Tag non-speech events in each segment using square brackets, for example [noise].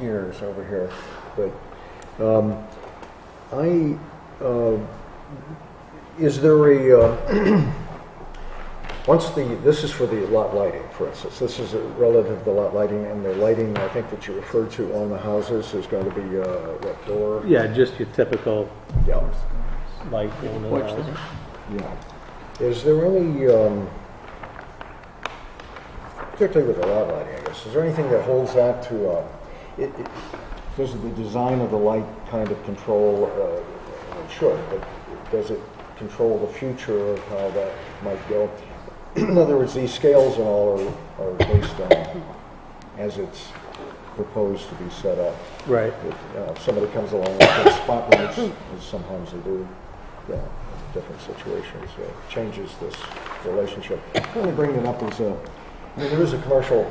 years over here, but, um, I, uh, is there a, uh, [clears throat] once the, this is for the lot lighting, for instance, this is relative to the lot lighting, and the lighting, I think that you referred to on the houses is going to be, uh, what, door? Yeah, just your typical Yeah. light going in and out. Yeah. Is there any, um, particularly with the lot lighting, I guess, is there anything that holds that to, uh, it, it, does the design of the light kind of control, uh, it should, but does it control the future of how that might go? In other words, these scales and all are, are based on, as it's proposed to be set up. Right. If, uh, if somebody comes along with those spotlights, as sometimes they do, yeah, different situations, so it changes this relationship. I'm only bringing it up as a, I mean, there is a commercial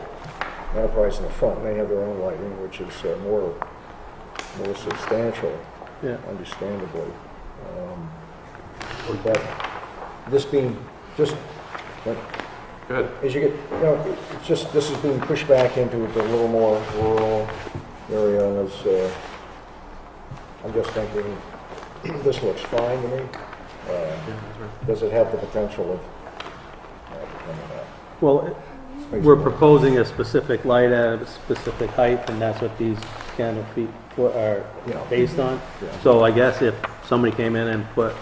enterprise in the front, and they have their own lighting, which is uh, more, more substantial, Yeah. understandably. Um, But this being, just, but Good. as you get, you know, it's just, this is being pushed back into the little more rural area, and it's, uh, I'm just thinking, this looks fine to me. Uh, Does it have the potential of, uh, becoming a Well, space we're more- proposing a specific light at a specific height, and that's what these candle feet fo- are Yeah. based on. Yeah. So I guess if somebody came in and put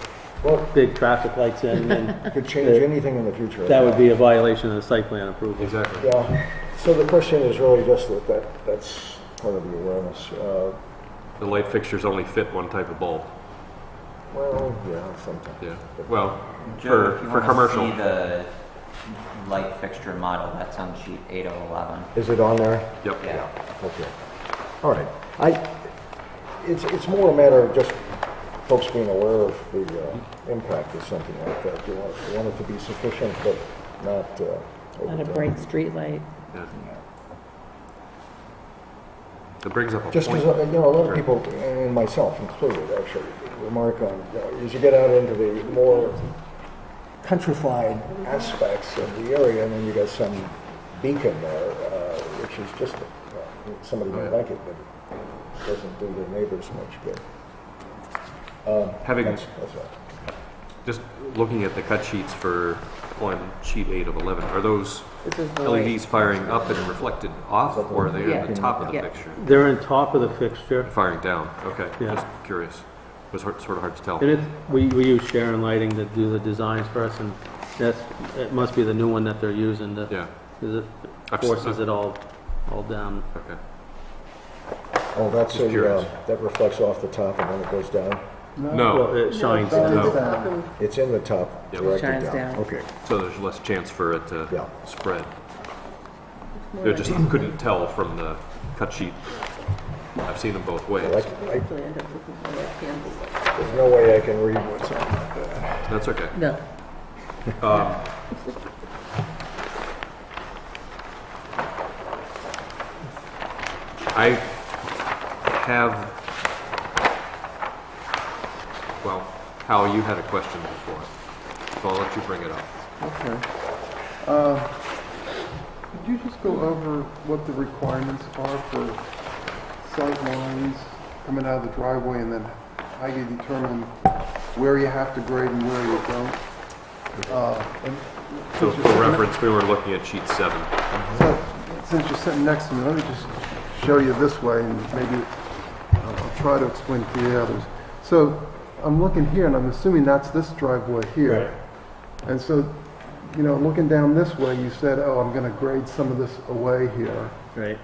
Well, big traffic lights in, it then could change anything in the future. that would be a violation of the site plan approval. Exactly. Yeah, so the question is really just that, that, that's part of the awareness. Uh, The light fixtures only fit one type of bulb. well, yeah, sometimes. Yeah. Well, Joe, for, if you for want to commercial. see the light fixture model, that's on sheet 8011. Is it on there? Yep. Yeah. Okay. All right. I, it's, it's more a matter of just folks being aware of the uh, impact of something like that. You want, you want it to be sufficient, but not uh, Not a overdone. bright streetlight. Yeah. That brings up a Just because, point. you know, a lot of Sure. people, and myself included, actually, remark on, you know, as you get out into the more countrified aspects of the area, and then you got some beacon there, uh, which is just, uh, somebody might like it, but it doesn't do their neighbors much good. Having, That's, that's all. just looking at the cut sheets for on sheet eight of 11, are those This is the light. LEDs firing up and reflected off or are they on the top of the Yeah. fixture? They're on top of the fixture, Firing down, okay. Yeah. Just curious. It was hard- sort of hard to tell. and it's, we, we use Sharon Lighting to do the designs for us, and that's, it must be the new one that they're using to, Yeah, 'cause it I've s- forces it all, all down. okay. Oh, that's Just a, curious. uh, that reflects off the top and then it goes down. Well, No, it shines no. down. It's in the top, Yep. directed down. Shines down. Okay. So there's less chance for it to Yeah. spread. They just couldn't tell from the cut sheet. I've seen them both ways. Like, I- there's no way I can read what's on that. That's okay. No. I have, well, Hal, you had a question before, so I'll let you bring it up. Okay. Uh, Could you just go over what the requirements are for sight lines coming out of the driveway and then how you determine where you have to grade and where you don't? Uh, and So for since you're sitting- reference, we were looking at sheet seven. so, Since you're sitting next to me, let me just show you this way and maybe I'll I'll try to explain to the others. So I'm looking here and I'm assuming that's this driveway here. And so, you know, looking down this way, you said, oh, I'm going to grade some of this away here. Right.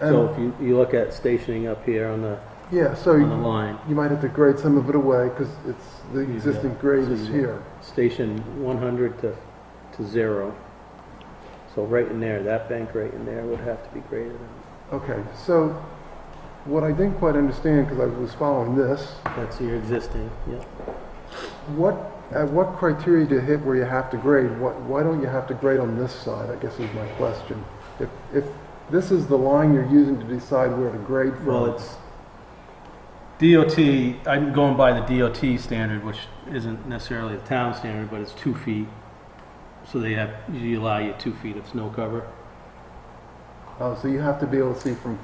So And, if you, you look at stationing up here on the, yeah, so on the you line, you might have to grade some of it away because it's, the existing grade is here. station one hundred to, to zero. So right in there, that bank right in there would have to be graded out. Okay, so what I didn't quite understand, because I was following this, That's your existing, yeah. what, at what criteria do you hit where you have to grade? What, why don't you have to grade on this side, I guess is my question. If, if this is the line you're using to decide where to grade from. Well, it's DOT, I'm going by the DOT standard, which isn't necessarily the town standard, but it's two feet. So they have, you allow you two feet of snow cover. Oh, so you have to be able to see from